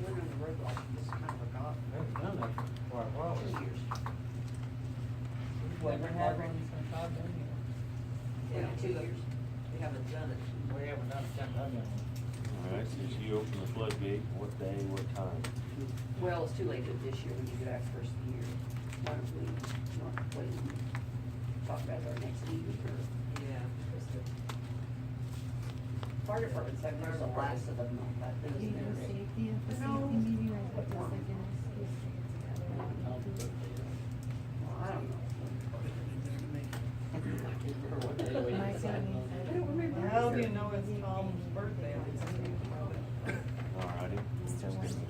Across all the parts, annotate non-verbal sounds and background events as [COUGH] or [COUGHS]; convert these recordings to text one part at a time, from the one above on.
like it's kind of forgotten, they've done it for a while, two years. We've never had one since I've been Yeah, here. two years. We haven't done it. We haven't done it, done that All right, since you open the floodgate, what day, what time? Well, it's too late to this year, we need to do that first of the year. Why don't we, not wait and talk about it our next meeting or? Yeah. Fire department's having theirs the last of the month, I think. You isn't it, know, Rick? safety, the safety meeting right at the second is Tuesday. Well, I don't know. My family said- How do you know it's Tom's birthday? All righty. Mr. Wayne said-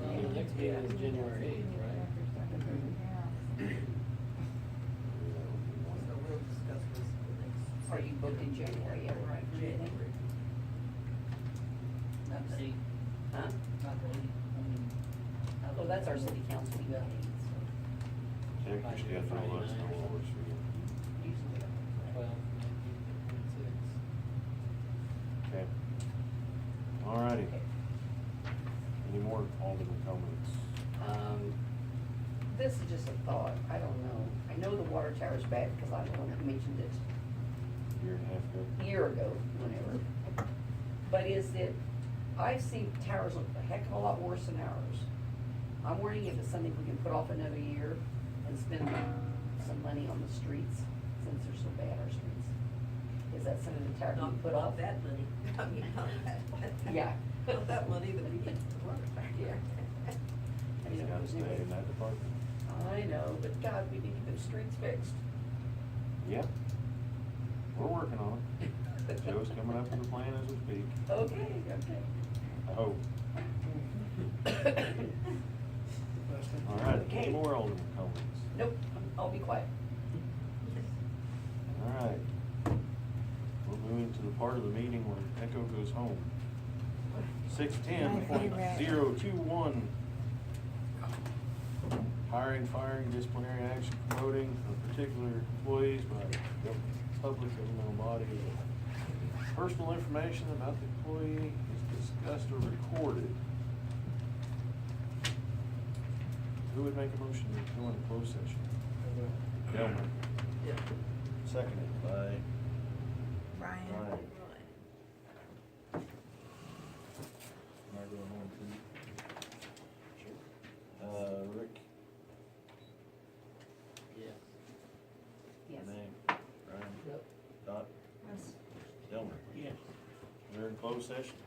Well, the next meeting is January eighth, Are you booked in January yet, right? January. Huh? Oh, that's our city council meeting. Check your schedule, let us know what works for you. Usually. Well, Okay. All righty. Any more Alderman comments? Um, this is just a thought, I don't know. I know the water tower's bad because I'm the one that mentioned it Year and a half ago? a year ago, whenever. But is it, I've seen towers look a heck of a lot worse than ours. I'm wondering if it's something we can put off another year and spend some money on the streets, since they're so bad, our streets. Is that something the tower can Not put off? that money. I mean, not that. Yeah. [LAUGHS] Not that money that we get to work back here. I mean, You gotta stay in that department. I know, but God, we need to get those streets fixed. Yeah. We're working on it. Joe's coming up with a plan as we speak, Okay, okay. I hope. All right, any more Alderman comments? [COUGHS] Nope, I'll be quiet. All right. We'll move into the part of the meeting where Echo goes home. Six ten point zero two one. Hiring, firing, disciplinary action, promoting of particular employees by the public governmental body. Personal information about the employee is discussed or recorded. Who would make a motion to go into closed session? Delmer. Seconded by Brian. Ryan. Am I going home too? Uh, Rick, Yes. Yes. name, Ryan, Yep. Dot, Delmer. Yes. We're in closed session.